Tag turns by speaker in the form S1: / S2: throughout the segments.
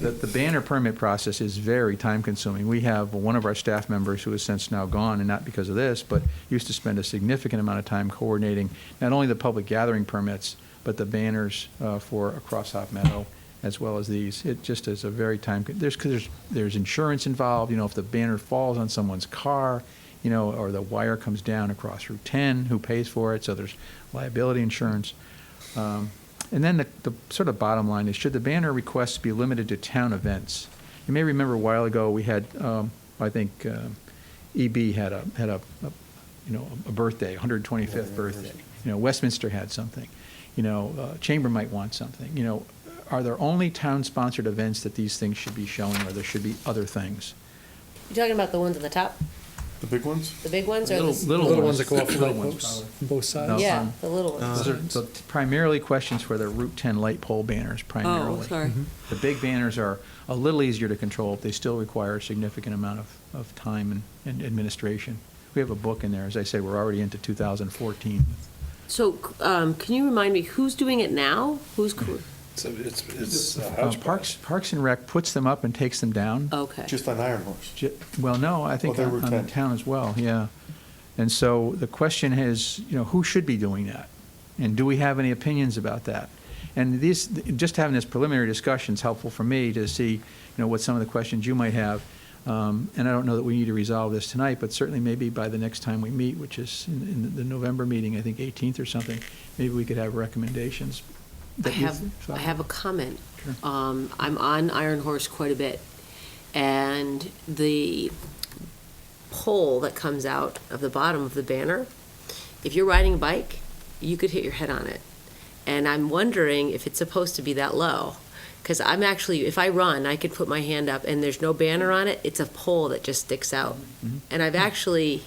S1: the, the banner permit process is very time-consuming. We have one of our staff members who is since now gone, and not because of this, but used to spend a significant amount of time coordinating not only the public gathering permits, but the banners uh, for across Hop Meadow, as well as these. It just is a very time, there's, 'cause there's, there's insurance involved, you know, if the banner falls on someone's car, you know, or the wire comes down across Route 10, who pays for it? So there's liability insurance. Um, And then the, the sort of bottom line is, should the banner requests be limited to town events? You may remember a while ago, we had, um, I think, um, EB had a, had a, a- you know, a birthday, 125th birthday. You know, Westminster had something, you know, uh, Chamber might want something, you know. Are there only town-sponsored events that these things should be shown, or there should be other things?
S2: You talking about the ones at the top,
S3: The big ones?
S2: the big ones or the?
S4: Little,
S2: s-
S4: little
S5: Little
S4: ones.
S5: ones that go off the
S4: Little
S5: light
S4: ones,
S5: posts
S4: probably.
S5: on both
S1: No.
S5: sides.
S2: Yeah, the little ones.
S1: Those
S3: Uh-huh.
S1: are so primarily questions for the Route 10 light pole banners primarily.
S6: Oh, sorry.
S1: The big banners are a little easier to control, but they still require a significant amount of, of time and, and administration. We have a book in there, as I say, we're already into 2014.
S2: So, um, can you remind me, who's doing it now? Who's, co-
S3: Hmm.
S5: So it's, it's uh,
S1: Um, Parks, Parks and Rec puts them up and takes them down.
S2: okay.
S3: Just on Iron Horse.
S1: Ju- Well, no, I think
S3: Oh, they're
S1: on on the
S3: Route 10.
S1: town as well, yeah. And so the question is, you know, who should be doing that? And do we have any opinions about that? And these, just having this preliminary discussion is helpful for me to see, you know, what some of the questions you might have. Um, And I don't know that we need to resolve this tonight, but certainly maybe by the next time we meet, which is in- in the November meeting, I think 18th or something, maybe we could have recommendations.
S2: I
S1: that you
S2: have,
S1: thought
S2: I have a comment.
S1: Sure.
S2: Um, I'm on Iron Horse quite a bit, and the pole that comes out of the bottom of the banner, if you're riding a bike, you could hit your head on it. And I'm wondering if it's supposed to be that low, because I'm actually, if I run, I could put my hand up, and there's no banner on it, it's a pole that just sticks out.
S1: Mm-hmm.
S2: And I've actually,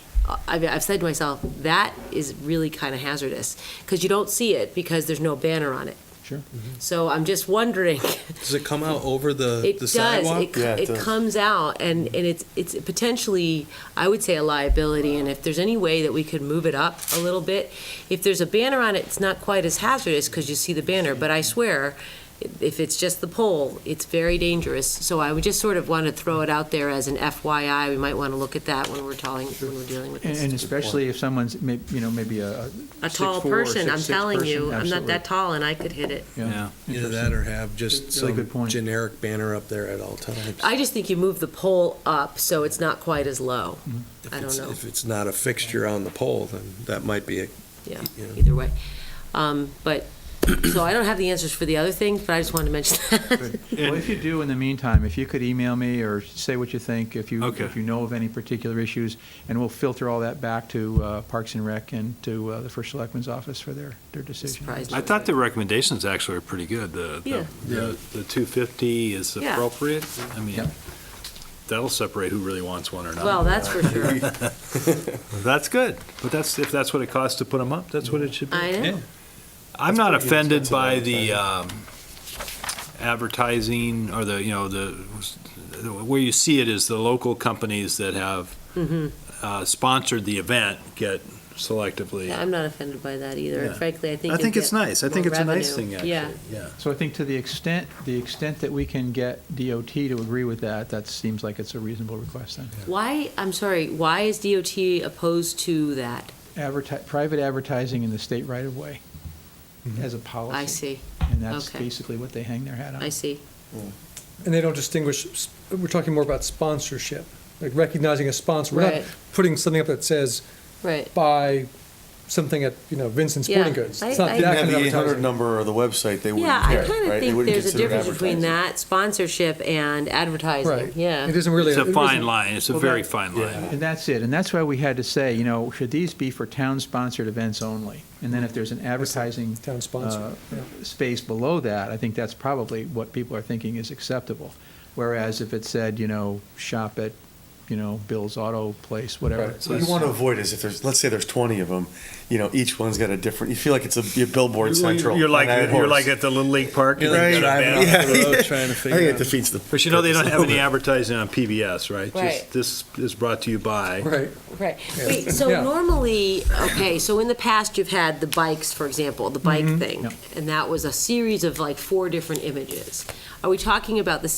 S2: I've, I've said to myself, that is really kind of hazardous, because you don't see it, because there's no banner on it.
S1: Sure.
S2: So I'm just wondering,
S4: Does it come out over the,
S2: it
S4: the
S2: does,
S4: sidewalk?
S2: it, co-
S3: Yeah, it
S2: it
S3: does.
S2: comes out and, and it's, it's potentially, I would say a liability. And if there's any way that we could move it up a little bit, if there's a banner on it, it's not quite as hazardous because you see the banner, but I swear, if it's just the pole, it's very dangerous. So I would just sort of want to throw it out there as an FYI. We might want to look at that when we're talking, when we're dealing with
S1: And-
S2: this.
S1: And especially if someone's, may- you know, maybe a.
S2: a
S1: six
S2: tall
S1: four or
S2: person,
S1: six
S2: I'm
S1: six
S2: telling
S1: person,
S2: you, I'm not
S1: absolutely.
S2: that tall and I could hit it.
S4: Yeah, either
S1: Interesting.
S4: that or have just
S1: Really good
S4: some
S1: point.
S4: generic banner up there at all times.
S2: I just think you move the pole up so it's not quite as low.
S4: If
S2: I
S4: it's-
S2: don't know.
S4: If it's not a fixture on the pole, then that might be, a-
S2: Yeah,
S4: Yeah.
S2: either way. Um, but, so I don't have the answers for the other things, but I just wanted to mention that.
S1: Well, if you do, in the meantime, if you could email me or say what you think, if you,
S7: Okay.
S1: if you know of any particular issues, and we'll filter all that back to uh, Parks and Rec and to uh, the First Selectman's Office for their, their decision.
S2: Surprised.
S7: I thought the recommendations actually are pretty good. The,
S2: Yeah.
S7: the- the, the 250 is
S2: Yeah.
S7: appropriate. I mean,
S1: Yep.
S7: that'll separate who really wants one or not.
S2: Well, that's for sure.
S7: That's good, but that's, if that's what it costs to put them up, that's what it should be.
S2: I know.
S7: I'm not
S3: pretty
S7: offended
S3: inexpensive
S7: by the um, advertising or the, you know, the, where you see it is the local companies that have
S2: Mm-hmm.
S7: uh, sponsored the event get selectively.
S2: I'm not offended by that either.
S7: Yeah.
S2: Frankly, I think.
S7: I
S2: it'd
S7: think it's
S2: get
S7: nice. I think
S2: more
S7: it's a nice
S2: revenue.
S7: thing, actually.
S2: Yeah.
S7: Yeah.
S1: So I think to the extent, the extent that we can get DOT to agree with that, that seems like it's a reasonable request then.
S2: Why, I'm sorry, why is DOT opposed to that?
S1: Adverti- private advertising in the state right-of-way as a policy.
S2: I see,
S1: And that's
S2: okay.
S1: basically what they hang their hat on.
S2: I see.
S5: And they don't distinguish, s- we're talking more about sponsorship, like recognizing a sponsor. We're not
S2: Right.
S5: putting something up that says,
S2: Right.
S5: buy something at, you know, Vincent Sporting
S2: Yeah,
S5: Goods.
S2: I-
S5: It's not
S2: I-
S5: that
S3: Didn't
S5: kind
S3: have
S5: of
S3: the eight
S5: advertising.
S3: hundred number or the website, they
S2: Yeah,
S3: wouldn't
S2: I
S3: care, right?
S2: kind of
S3: They
S2: think
S3: wouldn't
S2: there's a
S3: consider it
S2: difference between
S3: advertising.
S2: that sponsorship and advertising,
S5: Right.
S2: yeah.
S5: It isn't really.
S7: It's
S5: it
S7: a
S5: isn't-
S7: fine line. It's a
S5: Well,
S7: very
S5: that-
S7: fine line.
S1: And that's it, and that's why we had to say, you know, should these be for town-sponsored events only? And then if there's an advertising.
S5: Town-sponsored,
S1: uh,
S5: yeah.
S1: Space below that, I think that's probably what people are thinking is acceptable. Whereas if it said, you know, shop at, you know, Bill's Auto Place, whatever.
S5: Right.
S3: What you want to avoid is if there's, let's say there's twenty of them, you know, each one's got a different, you feel like it's a your billboard central.
S7: You're like,
S3: on Iron
S7: you're
S3: Horse.
S7: like at the Little League Park.
S4: You're like
S7: and you got a
S4: driving
S7: banner.
S4: off the
S3: Yeah,
S4: road
S3: yeah.
S4: trying to
S3: I
S4: figure
S3: think it
S4: out-
S3: defeats the.
S7: But you know, they don't have any
S3: purpose.
S7: advertising on PBS, right?
S2: Right.
S7: Just This is brought to you by.
S5: Right.
S2: Right. Wait, so
S5: Yeah.
S2: normally, okay, so in the past, you've had the bikes, for example,
S5: Mm-hmm.
S2: the bike thing.
S1: Yep.
S2: And that was a series of like four different images. Are we talking about the